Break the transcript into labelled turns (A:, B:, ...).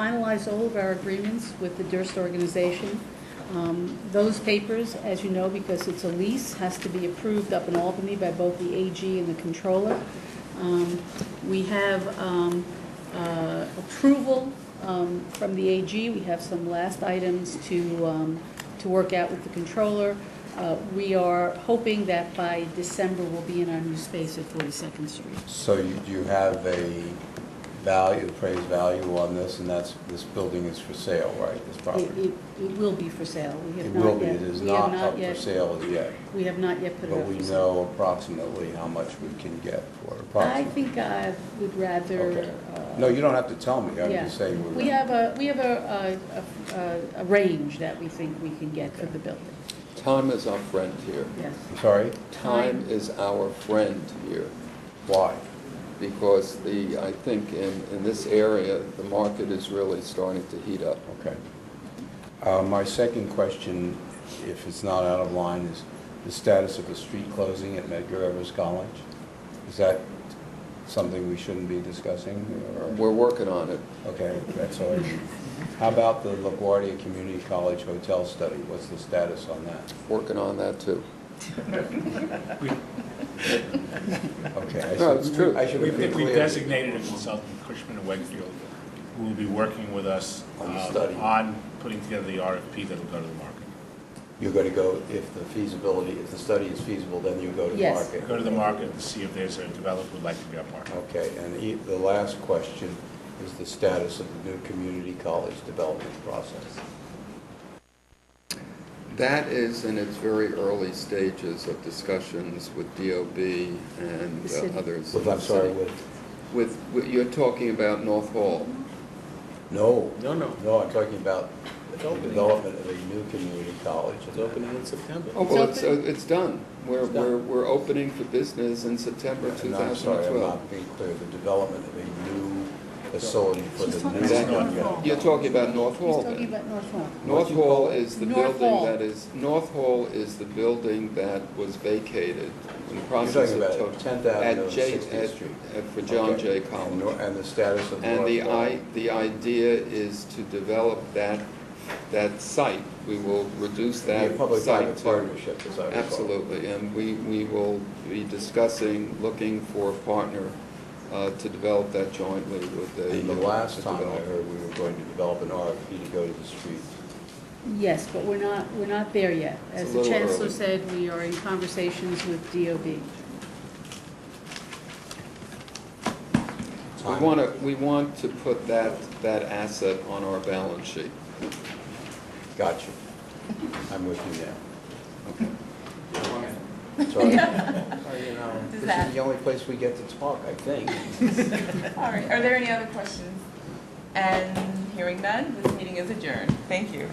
A: finalize all of our agreements with the Durst organization. Um, Those papers, as you know, because it's a lease, has to be approved up in Albany by both the AG and the controller. Um, We have um, uh, approval um, from the AG. We have some last items to, um, to work out with the controller. Uh, We are hoping that by December, we'll be in our new space at 42nd Street.
B: So you, do you have a value, appraised value on this, and that's, this building is for sale, right, this
A: It,
B: property?
A: it- it will be for sale. We
B: It
A: have
B: will
A: not
B: be,
A: yet.
B: it is
A: we have
B: not up for
A: yet-
B: sale as yet,
A: We have not yet put it
B: but
A: up
B: we
A: for sale.
B: know approximately how much we can get for it,
A: I
B: approximately.
A: think I would rather.
B: Okay.
A: uh,
B: No, you don't have to tell me, I'm
A: yeah.
B: just saying we're.
A: We have a, we have a, a- a- a range that we think we can get for the building,
C: Time is our friend here.
A: yes.
B: I'm Sorry,
C: Time is our friend here,
B: why?
C: because the, I think in, in this area, the market is really starting to heat up.
B: Okay. Uh, My second question, if it's not out of line, is the status of the street closing at Medgar Evers College? Is that something we shouldn't be discussing? or-
C: We're working on it.
B: Okay, that's all. I need. How about the LaGuardia Community College Hotel Study? What's the status on that?
C: Working on that too.
B: Okay. I
C: No,
B: should-
C: it's true.
B: I should
D: We
B: have been
D: we
B: clear.
D: designated a consultant, Cushman and Wakefield, who will be working with us
B: On the
D: um,
B: study.
D: on putting together the RFP that'll go to the market.
B: You're going to go, if the feasibility, if the study is feasible, then you go to the
A: Yes.
B: market?
D: Go to the market and see if there's a developer who'd like to be our partner.
B: Okay, and e- the last question is the status of the new community college development process.
C: That is in its very early stages of discussions with DOB and
A: The city.
C: uh, others.
B: With, I'm sorry, with,
C: With, with- you're talking about North Hall.
B: no.
E: No, no.
B: No, I'm talking about the
E: It's opening.
B: development of a new community college.
E: It's opening in September.
C: Oh, well, it's, uh, it's done. We're,
E: It's done.
C: we're, we're opening for business in September
B: And I'm sorry, I'm
C: 2012.
B: not being clear, the development of a new facility for
A: She's
B: the
A: talking
B: new.
C: about
B: community.
A: North Hall.
C: You're talking about North
A: He's
C: Hall then?
A: talking about North Lawn.
C: North
B: What you call
C: Hall is the
A: North
C: building
A: Hall.
C: that is, North Hall is the building that was vacated in the
B: You're
C: process
B: talking
C: of.
B: about
C: to-
B: 10th Avenue
C: at
B: and
C: J-
B: 60th
C: at-
B: Street.
C: at- For John
B: Okay.
C: Jay
B: And nor-
C: College.
B: And the status of
C: And the
B: North Lawn.
C: I, the idea is to develop that, that site. We will reduce
B: Be a
C: that site
B: public-private
C: to.
B: partnership, as I recall.
C: Absolutely, and we, we will be discussing, looking for a partner uh, to develop that jointly with the.
B: And the last time I
C: developer.
B: heard, we were going to develop an RFP to go to the streets.
A: Yes, but we're not, we're not there yet.
C: It's
A: As
C: a
A: the
C: little
A: chancellor
C: early.
A: said, we are in conversations with DOB.
C: We want to, we want to put that, that asset on our balance sheet.
B: Got you. I'm with you now. Sorry. This is
F: that-
B: the only place we get to talk, I think.
F: All right, are there any other questions? And hearing none, this meeting is adjourned. Thank you.